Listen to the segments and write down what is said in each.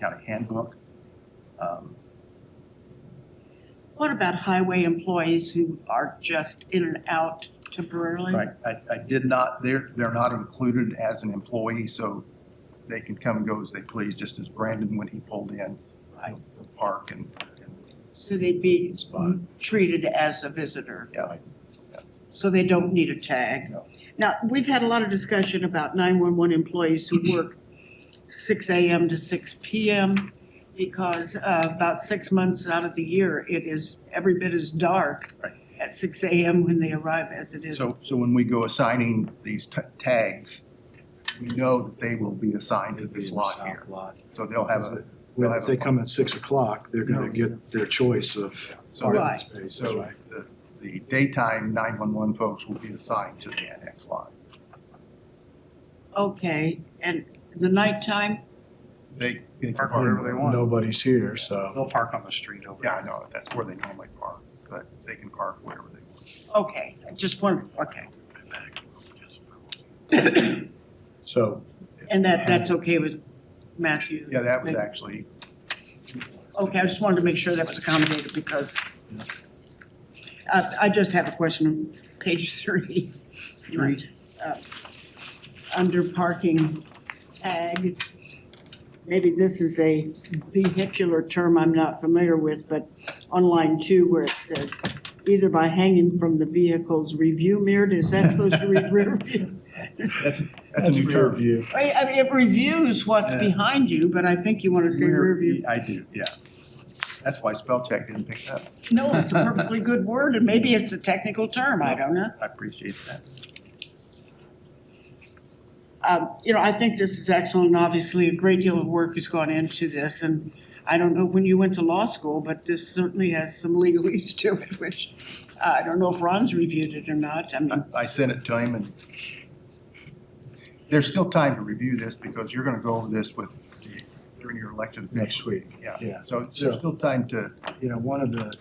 county handbook. Um, What about highway employees who are just in and out temporarily? Right, I, I did not, they're, they're not included as an employee, so they can come and go as they please, just as Brandon when he pulled in. Right. the Park and, So they'd be Spot. treated as a visitor, yeah, so they don't need a tag. No. Now, we've had a lot of discussion about nine-one-one employees who work six AM to six PM because uh, about six months out of the year, it is every bit as dark Right. at six AM when they arrive as it is. so, so when we go assigning these ta- tags, we know that they will be assigned to this lot South here. lot. So they'll have a, Well, if they come at six o'clock, they're gonna get their choice of so, the- parking Right. spaces, so right? the, the daytime nine-one-one folks will be assigned to the annex lot. Okay, and the nighttime, They, they can Park wherever park, they want. Nobody's here, so. They'll park on the street over yeah, there. I know, that's where they normally park, but they can park wherever they want. okay, I just wondered, okay. So And that, that's okay with Matthew? Yeah, that was actually Okay, I just wanted to make sure that was accommodated because uh, I just have a question on page thirty. Right. Uh, Under parking tag, maybe this is a vehicular term I'm not familiar with, but on line two where it says either by hanging from the vehicle's review mirror, is that supposed to read rear view? That's, that's that's a new rear term. view. I I mean, it reviews what's Yeah. behind you, but I think you want to say rear view. I do, yeah. That's why spell check didn't pick it up. No, it's a perfectly good word, and maybe it's a technical term, I don't know. I appreciate that. Um, you know, I think this is excellent, and obviously a great deal of work has gone into this, and I don't know when you went to law school, but this certainly has some legalese to it, which uh, I don't know if Ron's reviewed it or not, I Uh, mean, I, I sent it to him and there's still time to review this because you're gonna go over this with, the- during your elected Next official. week, Yeah, yeah. so there's still time to, You know, one of the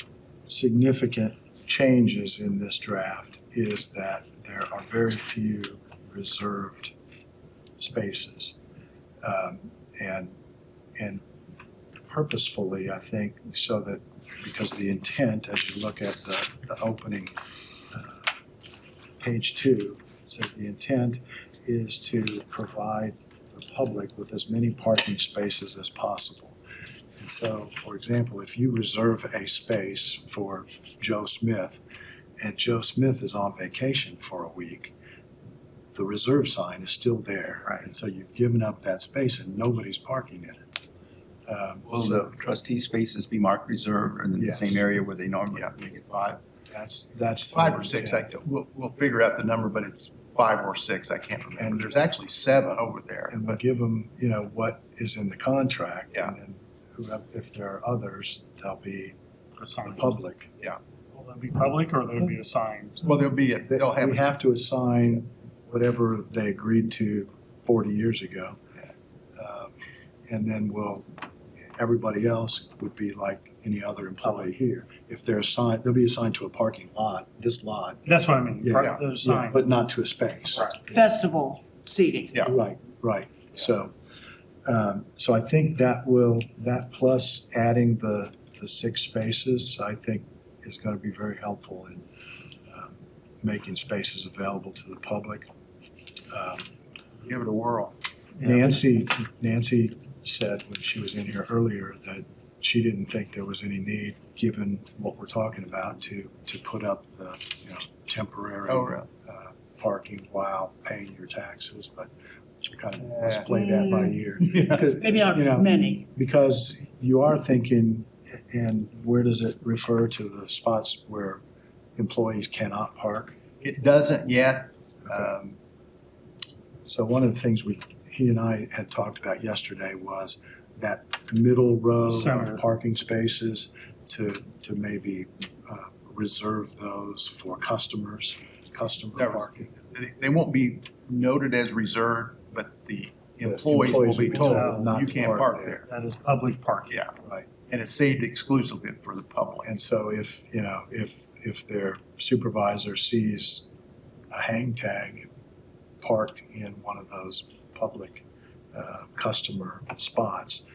significant changes in this draft is that there are very few reserved spaces. Um, And, and purposefully, I think, so that, because the intent, as you look at the, the opening, uh, page two, it says the intent is to provide the public with as many parking spaces as possible. And so, for example, if you reserve a space for Joe Smith, and Joe Smith is on vacation for a week, the reserve sign is still there. Right. And so you've given up that space and nobody's parking in it. Um, Will So the trustee spaces be marked reserved and in the Yes. same area where they normally make it five? that's, that's. the five or six, intent. I, we'll, we'll figure out the number, but it's five or six, I can't remember. And- There's actually seven over there. And we'll give them, you know, what is in the contract. Yeah. And then whoever- if there are others, they'll be the Assigned. public. Will they be public or they'll be assigned? Well, there'll be, a- They- they'll have. We a- have to assign whatever they agreed to forty years ago. Um, And then we'll, everybody else would be like any other employee here. If they're assigned, they'll be assigned to a parking lot, this lot, That's what I mean. Yeah. Part- They're assigned. but not to a space. Right. festival seating. Yeah. Right, right. So, um, so I think that will, that plus adding the, the six spaces, I think is going to be very helpful in um, making spaces available to the public. Um, Give it a whirl. Nancy, Nancy said when she was in here earlier that she didn't think there was any need, given what we're talking about, to, to put up the, you know, temporary Oh, really? uh, parking while paying your taxes, but kind of let's play that by ear. Yeah. Because, Mm. Maybe you know, not many, Because you are thinking, and where does it refer to the spots where employees cannot park? It doesn't yet, um, So one of the things we, he and I had talked about yesterday was that middle row Center. of parking spaces to, to maybe uh, reserve those for customers, customer That was- parking. they- they won't be noted as reserved, but the The employees will be told, not you to can't park there. That is public parking. Yeah. Right. And it's saved exclusively for the public. And so if, you know, if, if their supervisor sees a hang tag parked in one of those public uh, customer spots,